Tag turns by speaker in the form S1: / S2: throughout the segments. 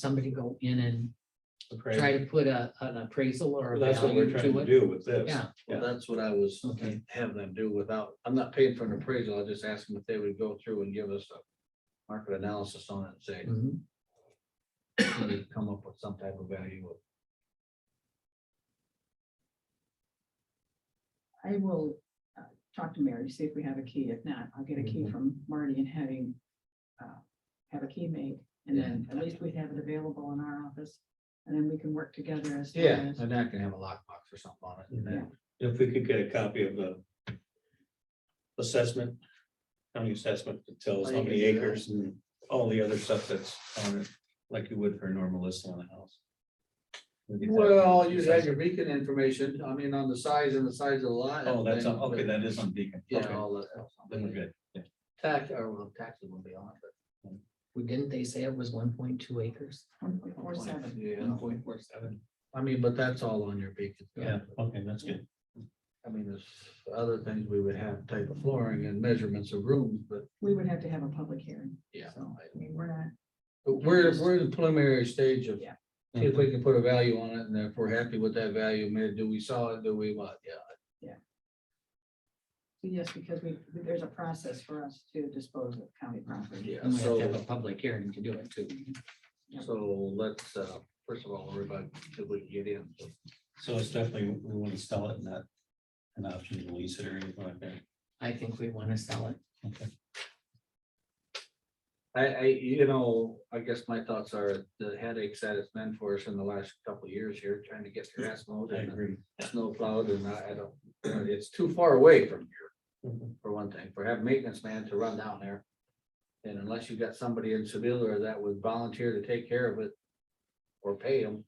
S1: somebody go in and
S2: Okay,
S1: try to put a, an appraisal or a
S2: that's what we're
S1: value to
S2: trying to
S1: it.
S2: do with this.
S1: Yeah.
S2: Yeah.
S3: Well, that's what I was
S1: Okay.
S3: having them do without, I'm not paying for an appraisal, I just asked them if they would go through and give us a market analysis on it and say,
S1: Mhm.
S3: can you come up with some type of value of
S4: I will uh, talk to Mary, see if we have a key. If not, I'll get a
S1: Mm-hmm.
S4: key from Marty and having, uh, have a key made. And then at least we have it available in our office and then we can work together as. far
S3: Yeah, Mm-hmm.
S4: as-
S3: and that can have a lockbox or something on it. and then-
S2: If we could get a copy of the assessment, county assessment that tells how many acres and all the other stuff that's on it, like you would for a normal list on a house. We get that.
S3: Well, you have your beacon information, I mean, on the size and the size of the lot.
S2: Oh, that's,
S3: everything,
S2: on- okay,
S3: but-
S2: that is on Beacon.
S3: Yeah,
S2: Okay,
S3: all that.
S2: Then we're good.
S3: Tax, or well, taxes will be on it.
S1: We Didn't they say it was one point two acres?
S4: One point
S3: but
S4: four seven.
S3: Yeah,
S1: point
S3: four seven. I mean, but that's all on your beacon.
S2: Yeah, okay, that's good.
S3: I mean, there's other things we would have type of flooring and measurements of rooms, but
S4: We would have to have a public hearing.
S3: yeah.
S4: So, I mean, we're not,
S3: But We're, we're in the preliminary stage of, see
S4: Yeah.
S3: if we can put a value on it, and if we're happy with that value, man, do we sell it, do we what, yeah.
S4: yes, because we, there's a process for us to dispose of county property.
S3: Yeah,
S1: And we have
S3: so-
S1: to have a public hearing to do it too.
S4: Yeah.
S3: So let's, uh, first of all, everybody, if we can get in.
S2: So it's definitely, we want to sell it, not an option to lease it or anything like that.
S1: I think we want to sell it.
S3: I, I, you know, I guess my thoughts are the headaches that it's been for us in the last couple of years here, trying to get grass mowed
S2: I
S3: and
S2: agree.
S3: snow plowed, and I, I don't, it's too far away from here.
S2: Mhm.
S3: for one thing, for have maintenance man to run down there. And unless you've got somebody in Seville that would volunteer to take care of it or pay them.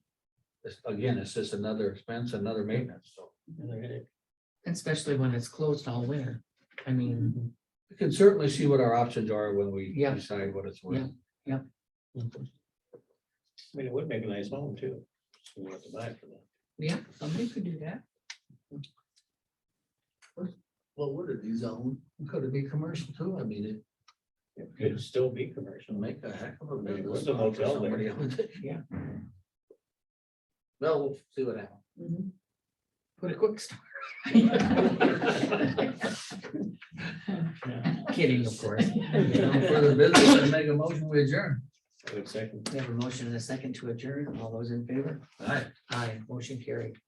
S3: This, again, it's just another expense, another maintenance, so
S2: Another headache.
S1: Especially when it's closed all winter. I
S2: Mm-hmm.
S1: mean,
S3: we can certainly see what our options are when we
S1: Yeah.
S3: decide what it's worth.
S2: Mhm. I mean, it would make a nice home too. So We'll have to buy it for that.
S1: yeah, somebody could do that.
S3: Well, would it be zone? Could it be commercial too? I mean, it
S2: It could still be commercial.
S3: would make a heck of a
S2: Maybe
S3: business.
S2: there's a
S3: model for
S2: hotel there.
S3: somebody else.
S1: Yeah.
S3: Well, we'll see what happens.
S4: Mhm.
S1: Put a quick start.
S2: Yeah,
S1: Kidding, of course.
S3: No Further business, and make a motion, we adjourn.
S2: I would second.
S1: We have a motion and a second to adjourn. All those in favor?
S3: All right.
S1: Aye, motion carried.